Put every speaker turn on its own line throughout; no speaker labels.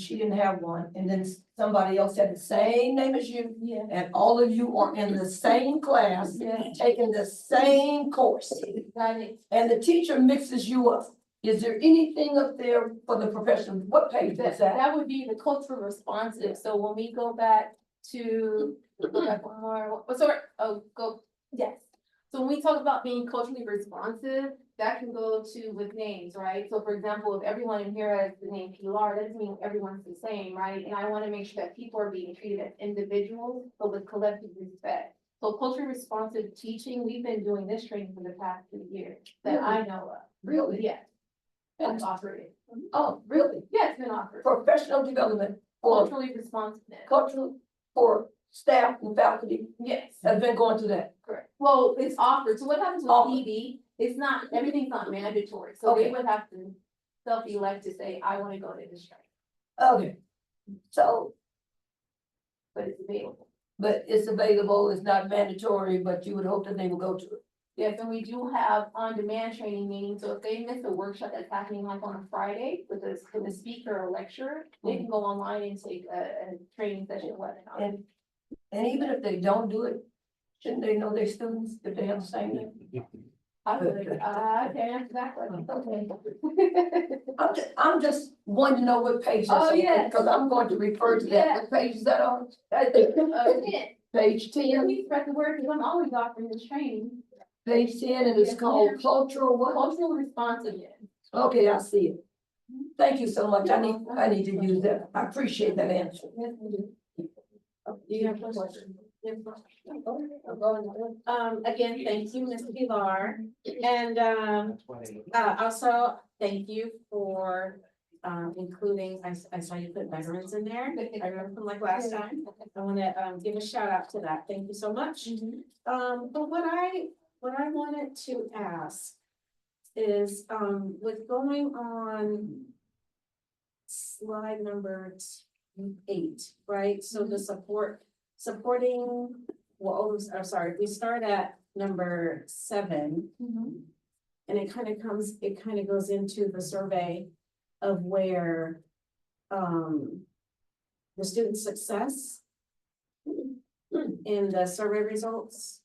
she didn't have one, and then somebody else had the same name as you,
Yeah.
and all of you are in the same class,
Yeah.
taking the same course,
Got it.
and the teacher mixes you up. Is there anything up there for the profession? What page
That,
is that?
that would be the cultural responsive, so when we go back to, go back one more, oh, sorry, oh, go, yes. So when we talk about being culturally responsive, that can go to with names, right? So for example, if everyone in here has the name Pilar, that doesn't mean everyone's the same, right? And I wanna make sure that people are being treated as individuals, but with collective respect. So culturally responsive teaching, we've been doing this training for the past two years, that I know of,
Really?
yeah, that's offered,
Oh, really?
yeah, it's been offered.
Professional development for
Culturally responsiveness,
cultural, for staff and faculty
yes,
has been going to that.
correct. Well, it's offered, so what happens with
Offered.
ED, it's not, everything's not mandatory, so they
Okay.
would have to self-elect to say, I wanna go to this training,
Okay. So,
but it's available.
but it's available, it's not mandatory, but you would hope that they will go to it.
Yes, and we do have on-demand training meetings, so if they miss a workshop that's happening like on a Friday with a, with a speaker or lecturer, they can go online and take a, a training session webinar.
And, and even if they don't do it, shouldn't they know their students if they have the same name?
I would, uh, I can answer that question.
Okay. I'm just, I'm just wanting to know what page that's
Oh,
on,
yes.
because I'm going to refer to that, what page is that on? I think
Uh, yeah,
Page
yeah,
ten,
we spread the word, because I'm always offering this training.
page ten, and it's
Yes,
called
ma'am.
cultural what?
Cultural responsiveness.
Okay, I see it. Thank you so much, I need, I need to use that, I appreciate that answer.
You have a question?
Mm-hmm. Um, again, thank you, Ms. Pilar, and, um, uh, also, thank you for, um, including, I, s- I saw you put veterans in there. I remember from like last time, I wanna, um, give a shout out to that, thank you so much. Um, but what I, what I wanted to ask is, um, with going on slide number t- eight, right, so the support, supporting, well, oh, s- I'm sorry, we start at number seven, and it kind of comes, it kind of goes into the survey of where, um, the student success in the survey results.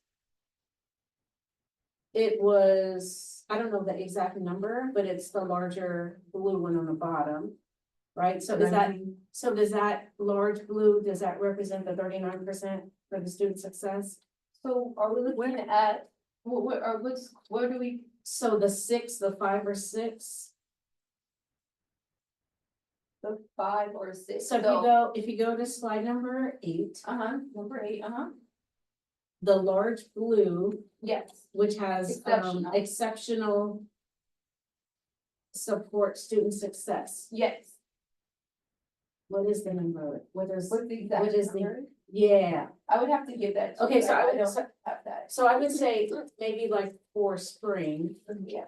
It was, I don't know the exact number, but it's the larger blue one on the bottom, right? So does that, so does that large blue, does that represent the thirty-nine percent for the student success?
So are we looking at, what, what, or what's, where do we,
So the six, the five or six,
the five or six, so.
so if you go, if you go to slide number eight,
Uh-huh, number eight, uh-huh,
the large blue,
yes,
which has um
Exceptional.
exceptional support student success,
yes,
what is the number, what is,
what's the exact
What is the-
number?
yeah,
I would have to give that. to you,
okay, so
but
I would,
don't
so-
have that,
so I would say maybe like for spring.
yeah,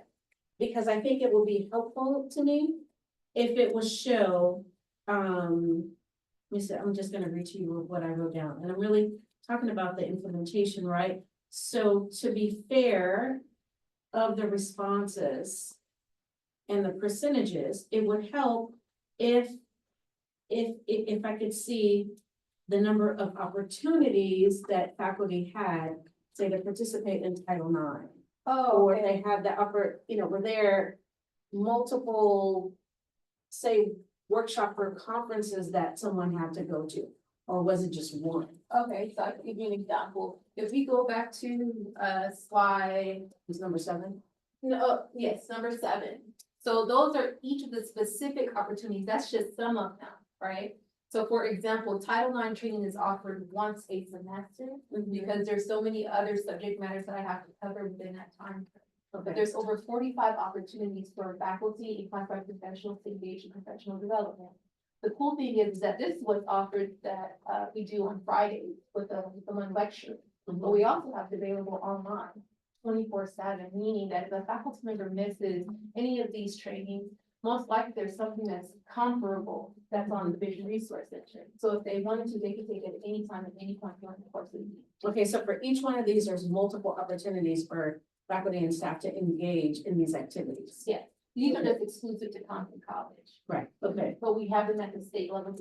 because I think it will be helpful to me if it will show, um, let me see, I'm just gonna read to you what I wrote down, and I'm really talking about the implementation, right? So to be fair of the responses and the percentages, it would help if, if, if, if I could see the number of opportunities that faculty had, say, to participate in Title IX.
oh,
Or if
okay,
they have the upper, you know, were there multiple, say, workshop or conferences that someone had to go to? Or was it just one?
okay, so I can give you an example, if we go back to, uh, slide
It was number seven?
No, oh, yes, number seven. So those are each of the specific opportunities, that's just some of them, right? So for example, Title IX training is offered once a semester because there's so many other subject matters that I have to cover within that time. But
Okay,
there's over forty-five opportunities for faculty and classified professionals to engage in professional development. The cool thing is that this was offered that uh we do on Fridays with a with one lecture.
Mm-hmm.
But we also have it available online twenty-four seven, meaning that if a faculty member misses any of these trainings, most likely there's something that's comparable that's on the vision resource center. So if they wanted to, they could take it at any time, at any point during the course of the year.
okay, so for each one of these, there's multiple opportunities for faculty and staff to engage in these activities.
Yeah. These are just exclusive to Compton College,
Right, okay.
but we have them at the state level